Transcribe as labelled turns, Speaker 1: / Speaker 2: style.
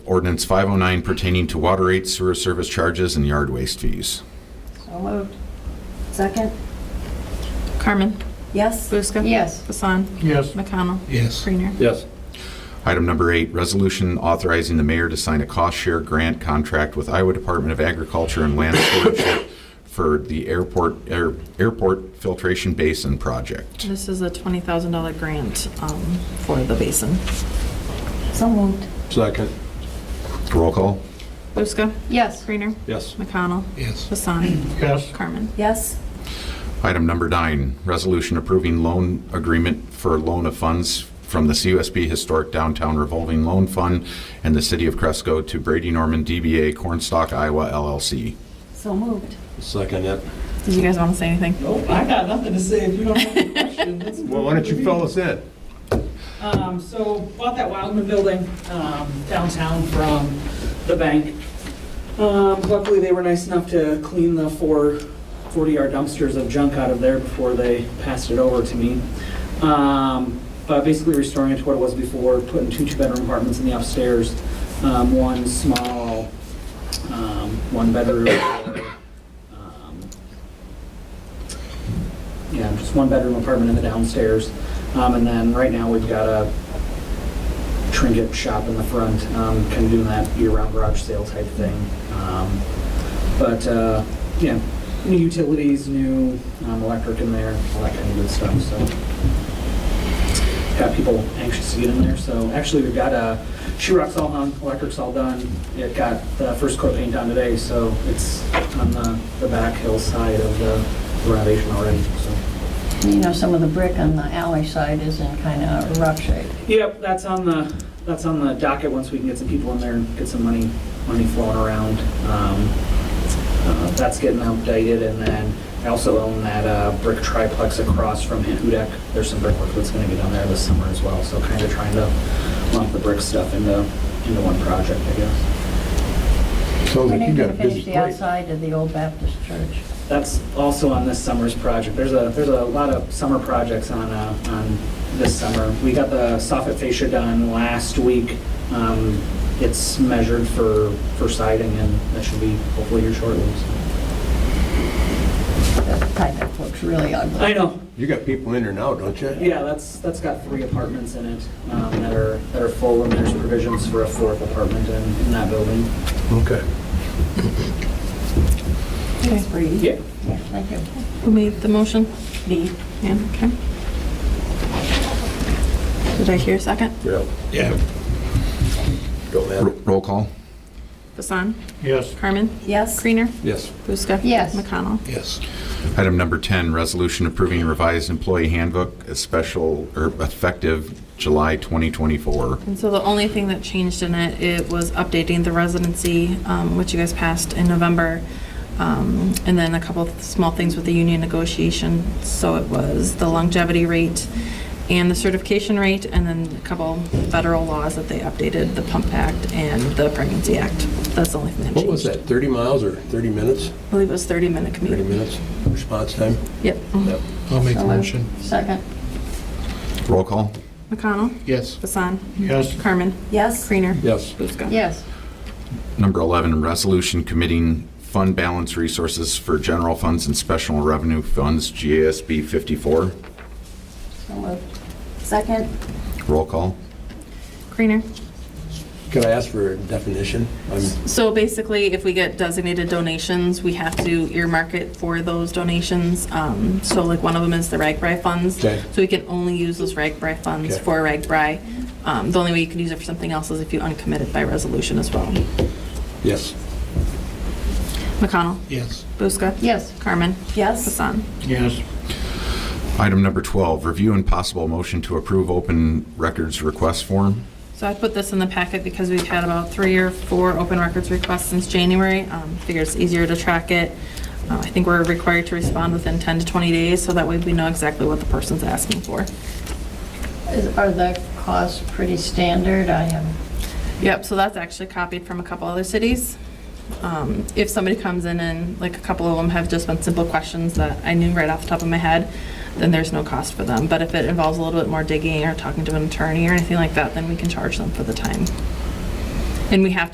Speaker 1: Ordinance 509 pertaining to water rates, sewer service charges, and yard waste fees.
Speaker 2: So moved.
Speaker 3: Second?
Speaker 4: Carmen.
Speaker 3: Yes?
Speaker 4: Buska.
Speaker 2: Yes.
Speaker 4: Hassan.
Speaker 5: Yes.
Speaker 4: McConnell.
Speaker 5: Yes.
Speaker 4: Creener.
Speaker 6: Yes.
Speaker 1: Item number eight, resolution authorizing the mayor to sign a cost share grant contract with Iowa Department of Agriculture and Land Stewardship for the airport, air- airport filtration basin project.
Speaker 4: This is a $20,000 grant um, for the basin.
Speaker 3: So moved.
Speaker 6: Second.
Speaker 1: Roll call?
Speaker 4: Buska.
Speaker 2: Yes.
Speaker 4: Creener.
Speaker 6: Yes.
Speaker 4: McConnell.
Speaker 5: Yes.
Speaker 4: Hassan.
Speaker 5: Yes.
Speaker 4: Carmen.
Speaker 3: Yes?
Speaker 1: Item number nine, resolution approving loan agreement for loan of funds from the CUSB Historic Downtown Revolving Loan Fund and the City of Cresco to Brady Norman DBA Cornstalk Iowa LLC.
Speaker 3: So moved.
Speaker 6: Second it.
Speaker 4: Did you guys want to say anything?
Speaker 7: Nope, I got nothing to say if you don't have a question. that's-
Speaker 8: Well, why don't you fill us in?
Speaker 7: Um, so bought that Wildman building, um, downtown from the bank. Um, luckily, they were nice enough to clean the four 40-yard dumpsters of junk out of there before they passed it over to me. Um, but basically restoring it to what it was before, putting two two-bedroom apartments in the upstairs, um, one small, um, one bedroom, um, yeah, just one bedroom apartment in the downstairs. Um, and then right now we've got a trinket shop in the front, um, kind of doing that year-round garage sale type thing. Um, but, uh, yeah, new utilities, new, um, electric in there, all that kind of good stuff, so got people anxious to get in there. So actually, we've got uh, she rocks all hung, electric's all done. It got the first coat paint on today, so it's on the, the back hillside of the renovation already, so.
Speaker 2: You know, some of the brick on the alley side is in kind of rough shape.
Speaker 7: Yep, that's on the, that's on the docket, once we can get some people in there and get some money, money flowing around. Um, uh, That's getting updated, and then I also own that uh, brick triplex across from Hudak. There's some brickwork that's gonna be done there this summer as well, so kind of trying to lump the brick stuff into, into one project, I guess.
Speaker 8: Sounds
Speaker 2: We
Speaker 8: like Oh, you
Speaker 2: need
Speaker 8: got
Speaker 2: to
Speaker 8: a busy
Speaker 2: finish the
Speaker 8: plate.
Speaker 2: outside of the old Baptist church.
Speaker 7: That's also on this summer's project. There's a, there's a lot of summer projects on, uh, on this summer. We got the soffit fascia done last week. Um, It's measured for, for siding, and that should be hopefully here shortly. so.
Speaker 2: That kind of looks really ugly.
Speaker 7: I know,
Speaker 8: You got people in there now, don't you?
Speaker 7: Yeah, that's, that's got three apartments in it um, that are, that are full, and there's provisions for a fourth apartment in, in that building.
Speaker 8: Okay.
Speaker 3: Thanks, Bree.
Speaker 7: Yeah.
Speaker 2: Yeah, Thank you.
Speaker 4: Who made the motion?
Speaker 3: Me.
Speaker 4: Yeah, okay. Did I hear a second?
Speaker 8: Yeah.
Speaker 5: Yeah.
Speaker 8: Don't
Speaker 1: Ro-
Speaker 8: matter.
Speaker 1: Roll call?
Speaker 4: Hassan.
Speaker 5: Yes.
Speaker 4: Carmen.
Speaker 3: Yes?
Speaker 4: Creener.
Speaker 6: Yes.
Speaker 4: Buska.
Speaker 2: Yes.
Speaker 4: McConnell.
Speaker 5: Yes.
Speaker 1: Item number 10, resolution approving revised employee handbook, a special, or effective July 2024.
Speaker 4: And so the only thing that changed in it, it was updating the residency, um, which you guys passed in November, um, and then a couple of small things with the union negotiation. So it was the longevity rate and the certification rate, and then a couple federal laws that they updated, the Pump Act and the Pregnancy Act. That's the only thing that changed.
Speaker 8: What was that, 30 miles or 30 minutes?
Speaker 4: I believe it was 30-minute
Speaker 8: 30
Speaker 4: commute.
Speaker 8: minutes response time?
Speaker 4: Yep.
Speaker 5: I'll make the
Speaker 2: So moved.
Speaker 5: motion.
Speaker 2: Second.
Speaker 1: Roll call?
Speaker 4: McConnell.
Speaker 5: Yes.
Speaker 4: Hassan.
Speaker 5: Yes.
Speaker 4: Carmen.
Speaker 3: Yes?
Speaker 4: Creener.
Speaker 8: Yes.
Speaker 4: Buska.
Speaker 2: Yes.
Speaker 1: Number 11, resolution committing fund balance resources for general funds and special revenue funds, GASB 54.
Speaker 2: So moved.
Speaker 3: Second?
Speaker 1: Roll call?
Speaker 4: Creener.
Speaker 8: Could I ask for a definition? I'm
Speaker 4: So basically, if we get designated donations, we have to earmark it for those donations. Um, So like one of them is the RAGBRAI funds.
Speaker 8: Okay.
Speaker 4: So we can only use those RAGBRAI funds
Speaker 8: Okay.
Speaker 4: for RAGBRAI. Um, The only way you can use it for something else is if you uncommit it by resolution as well.
Speaker 8: Yes.
Speaker 4: McConnell.
Speaker 5: Yes.
Speaker 4: Buska.
Speaker 2: Yes.
Speaker 4: Carmen.
Speaker 3: Yes?
Speaker 4: Hassan.
Speaker 5: Yes.
Speaker 1: Item number 12, review and possible motion to approve open records request form.
Speaker 4: So I put this in the packet because we've had about three or four open records requests since January. Um, Figure it's easier to track it. Uh, I think we're required to respond within 10 to 20 days, so that way we know exactly what the person's asking for.
Speaker 2: Is- Are the costs pretty standard? I haven't
Speaker 4: Yep, so that's actually copied from a couple other cities. Um, If somebody comes in and, like, a couple of them have just been simple questions that I knew right off the top of my head, then there's no cost for them. But if it involves a little bit more digging or talking to an attorney or anything like that, then we can charge them for the time. And we have to